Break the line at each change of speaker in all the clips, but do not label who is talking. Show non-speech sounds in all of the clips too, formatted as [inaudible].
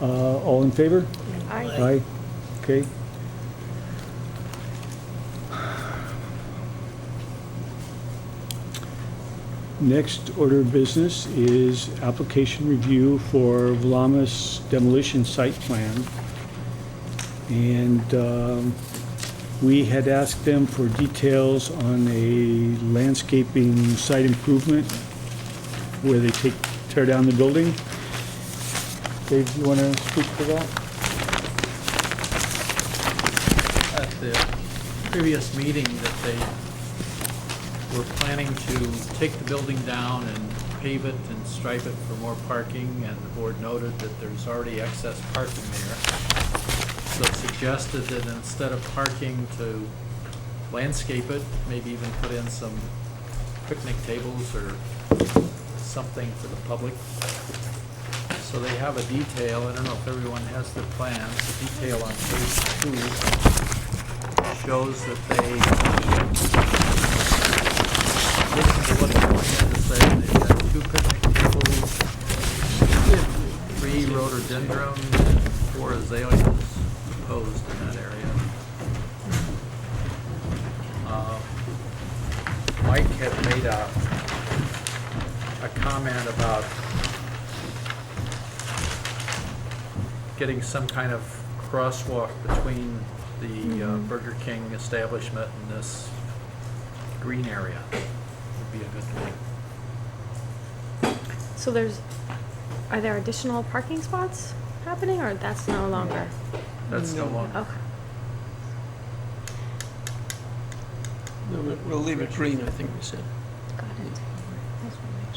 Uh, All in favor?
Aye.
Aye. Okay. Next order of business is application review for Vlamas demolition site plan. And um, we had asked them for details on a landscaping site improvement where they take, tear down the building. Dave, you want to speak to that?
at the previous meeting that they were planning to take the building down and pave it and stripe it for more parking, and the board noted that there's already excess parking there. So it suggested that instead of parking to landscape it, maybe even put in some picnic tables or something for the public. So they have a detail, I don't know if everyone has their plans, the detail on page two shows that they listened to what the board had to say. They've got two picnic tables, three rhododendron, and four azaleas proposed in that area. Uh, Mike had made a, a comment about getting some kind of crosswalk between the uh, Burger King establishment and this green area would be a good thing.
So there's, are there additional parking spots happening, or that's no longer?
That's no longer,
Okay.
No, we- We'll leave it green, I think we said.
Got it.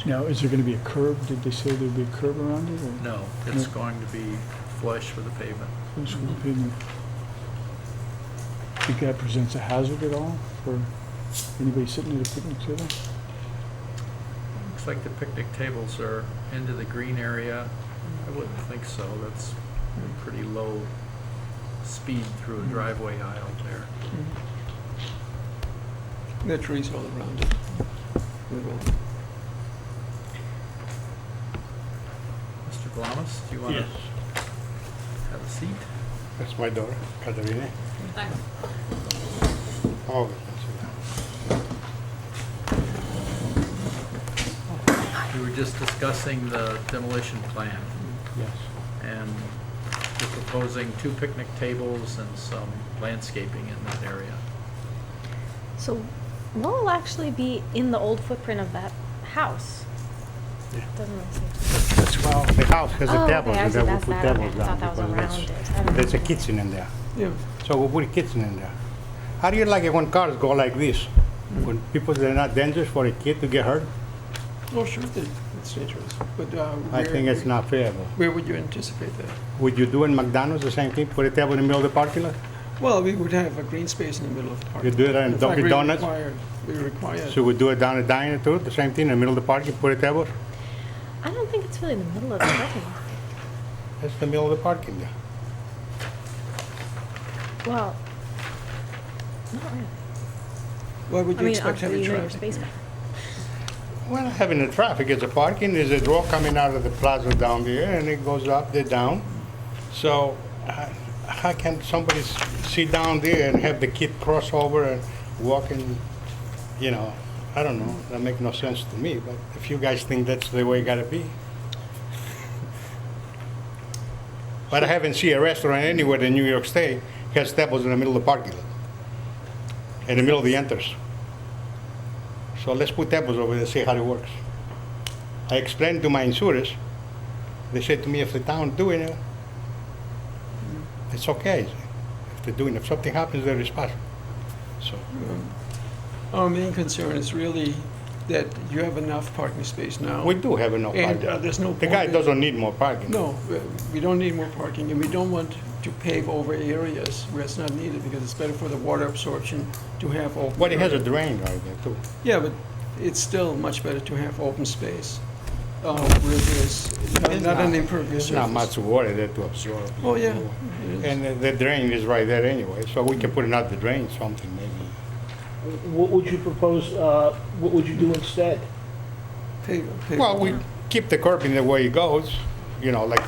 Now, is there going to be a curb? Did they say there'd be a curb around it? or-
no, it's going to be flush with the pavement.
What's your opinion? Think that presents a hazard at all for anybody sitting at a picnic table?
Looks like the picnic tables are into the green area. I wouldn't think so. That's a pretty low speed through a driveway aisle there.
Mm-hmm.
There are trees all around it. We will-
Mr. Glamis, do you want to have a seat?
That's my daughter, Katerina. Oh, that's
We were just discussing the demolition plan.
it. Yes.
and we're proposing two picnic tables and some landscaping in that area.
So what will actually be in the old footprint of that house?
Yeah.
Doesn't really seem.
Well, the house has
Oh,
a
okay,
table,
I
and
see,
then we
that's
put
that, okay,
tables
I
down
thought that was
because
around
there's-
it. I don't
There's a
know.
kitchen in there,
Yeah,
so we put a kitchen in there. How do you like it when cars go like this? When people, they're not dangerous for a kid to get hurt?
well, sure, that- it's dangerous, but. uh,
I
where-
think it's not fair. but-
Where would you anticipate that?
Would you do in McDonald's the same thing, put a table in the middle of the parking lot?
Well, we would have a green space in the middle of the park.
You do it on
In fact,
Dunkin'
we
Donuts?
require- We require,
So we do it down at diner too, the same thing, in the middle of the parking, put a table?
I don't think it's really in the middle of [clears throat] the parking lot.
That's the middle of the parking there.
Well, not really.
why would
I
you
mean,
expect
obviously
heavy
you know your
traffic?
space back.
Well, having the traffic, it's a parking, there's a door coming out of the plaza down there, and it goes up, there down. So uh, how can somebody s- sit down there and have the kid cross over and walk in, you know, I don't know, that make no sense to me, but if you guys think that's the way it gotta be. But I haven't seen a restaurant anywhere in New York State has tables in the middle of the parking lot, in the middle of the entrance. So let's put tables over there and see how it works. I explained to my insurers, they said to me, if the town doing it, it's okay. If they're doing, it, if something happens, they're responsible. So,
Our main concern is really that you have enough parking space now.
we do have enough
And uh,
parking.
there's no.
The guy
point in-
doesn't need more parking.
No, we- we don't need more parking, and we don't want to pave over areas where it's not needed, because it's better for the water absorption to have open.
But he has a
area.
drain right there too.
Yeah, but it's still much better to have open space, uh, where there's not-
It's
not an impervious surface.
It's not much water there to absorb.
Oh, yeah.
And uh, the drain is right there anyway, so we can put another drain, something maybe.
What would you propose, uh, what would you do instead?
Pave- pave
Well, we
over.
keep the curb in the way it goes, you know, like